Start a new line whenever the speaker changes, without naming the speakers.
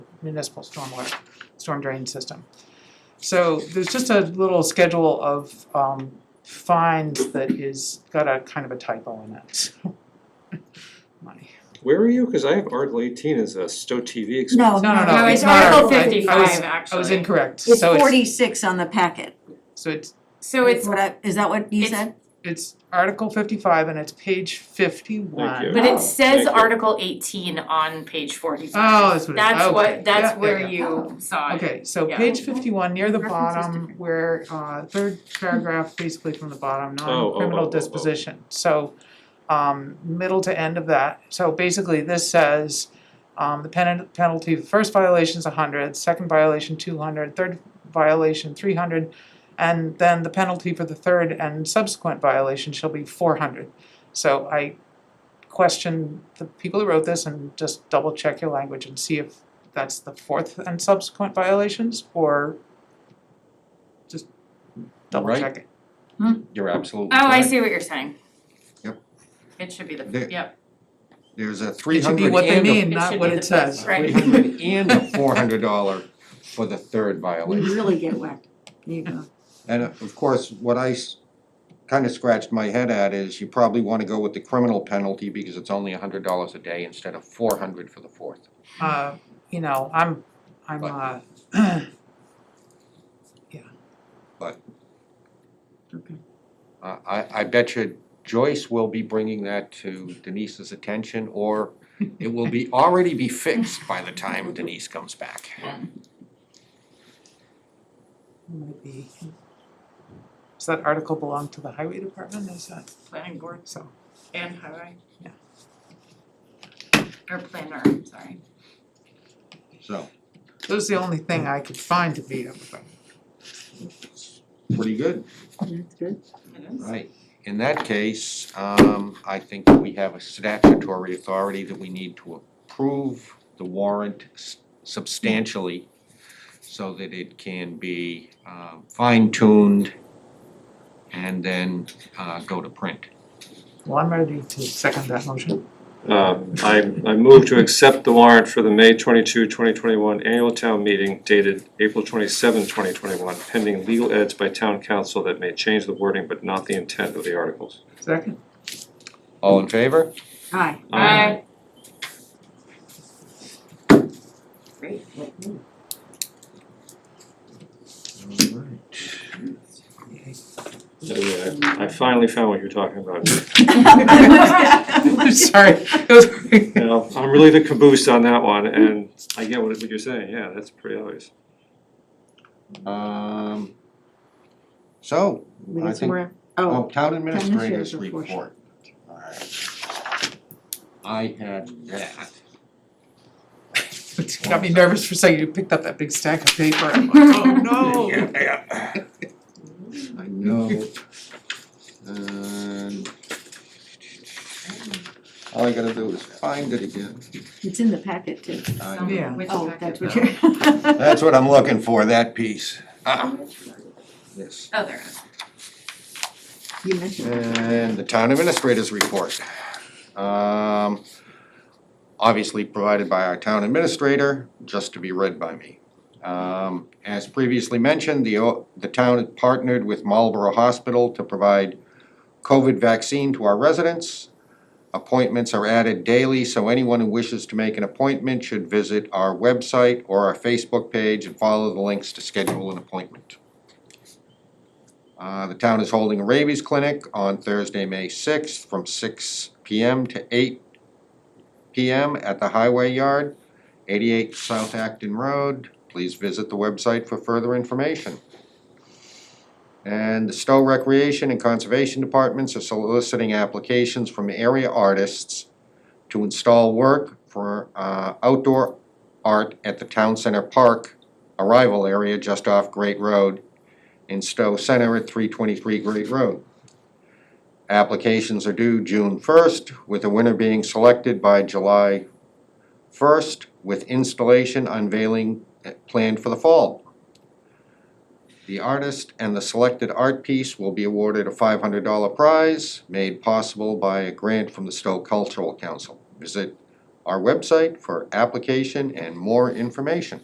municipal stormwater, storm drain system. So there's just a little schedule of um fines that is got a kind of a typo in it. My,
Where are you? Cause I have Article eighteen as a Stowe TV
no,
expense.
no,
No,
no,
it's
it's not,
Article
I- I was-
fifty-five,
I was
actually.
incorrect,
It's
so it's,
forty-six on the packet.
so it's,
So it's,
What I- Is that what you
It's-
said?
it's Article fifty-five and it's page fifty-one.
Thank you.
but
Oh.
it says
Thank you.
Article eighteen on page forty-five.
Oh, that's what it is.
That's
Okay.
what,
Yeah,
that's
yeah,
where
yeah.
you saw it.
Okay, so
Yeah.
page fifty-one, near the
Reference is
bottom,
different.
where, uh, third paragraph, basically from the bottom,
Oh, oh, oh, oh,
non-criminal
oh.
disposition. So, um, middle to end of that, so basically this says, um, the pen- penalty, for first violation's a hundred, second violation two hundred, third violation three hundred, and then the penalty for the third and subsequent violation shall be four hundred. So I question the people who wrote this and just double check your language and see if that's the fourth and subsequent violations or just double
Right.
check it.
You're absolutely
Oh, I
correct.
see what you're saying.
Yep.
It should be the,
There-
yep,
There's a three
It should
hundred
be what they
and
mean,
It
not
should
what
be
it
the
says.
best, right.
Three hundred and a four hundred dollar for the third
We
violation.
really get whacked. There you go.
Mm-hmm.
And of course, what I kind of scratched my head at is you probably want to go with the criminal penalty because it's only hundred dollars a day instead of four hundred for the fourth.
Uh, you know, I'm, I'm, uh,
But-
Okay.
Uh, I, I bet you Joyce will be bringing that to Denise's attention or it will be, already be fixed by the time Denise comes back.
might be. Does that article belong to the highway department? Is that,
planning board
so,
and highway.
Yeah.
Or planner, sorry.
So,
that was the only thing I could find to beat up about.
pretty good.
That's good.
It is.
Right, in that case, um, I think that we have a statutory authority that we need to approve the warrant s- substantially so that it can be, um, fine-tuned and then, uh, go to print.
Well, I'm ready to second that motion.
Uh, I, I move to accept the warrant for the May 22, 2021 annual town meeting dated April 27, 2021, pending legal edits by town council that may change the wording but not the intent of the articles.
Second?
All in favor?
Aye.
Aye.
Great.
Anyway, I I finally found what you're talking about.
Sorry, it was-
Now, I'm really the caboose on that one, and I get what what you're saying, yeah, that's pretty obvious.
Um, so,
We
I
got some
think,
more.
oh,
Oh,
town
administrator's
administrator's report.
report.
All right. I had that.
it got me nervous for a second. You picked up that big stack of paper. I'm like, oh, no.
Yeah. I know. And all I gotta do is find it again.
it's in the packet too.
I-
Some-
Yeah.
which
Oh,
packet?
that's
packet?
what you're.
That's what I'm looking for, that piece. Ah, yes.
Oh, there it is.
You mentioned. it.
And the town administrator's report. Um, obviously provided by our town administrator, just to be read by me. Um, as previously mentioned, the, o- the town had partnered with Marlborough Hospital to provide COVID vaccine to our residents. Appointments are added daily, so anyone who wishes to make an appointment should visit our website or our Facebook page and follow the links to schedule an appointment. Uh, the town is holding a rabies clinic on Thursday, May sixth, from six P M to eight P M at the Highway Yard, eighty-eight South Acton Road. Please visit the website for further information. And the Stowe Recreation and Conservation Departments are soliciting applications from area artists to install work for, uh, outdoor art at the Town Center Park arrival area just off Great Road in Stowe Center at three twenty-three Great Road. Applications are due June first, with a winner being selected by July first, with installation unveiling eh, planned for the fall. The artist and the selected art piece will be awarded a five hundred dollar prize, made possible by a grant from the Stowe Cultural Council. Visit our website for application and more information.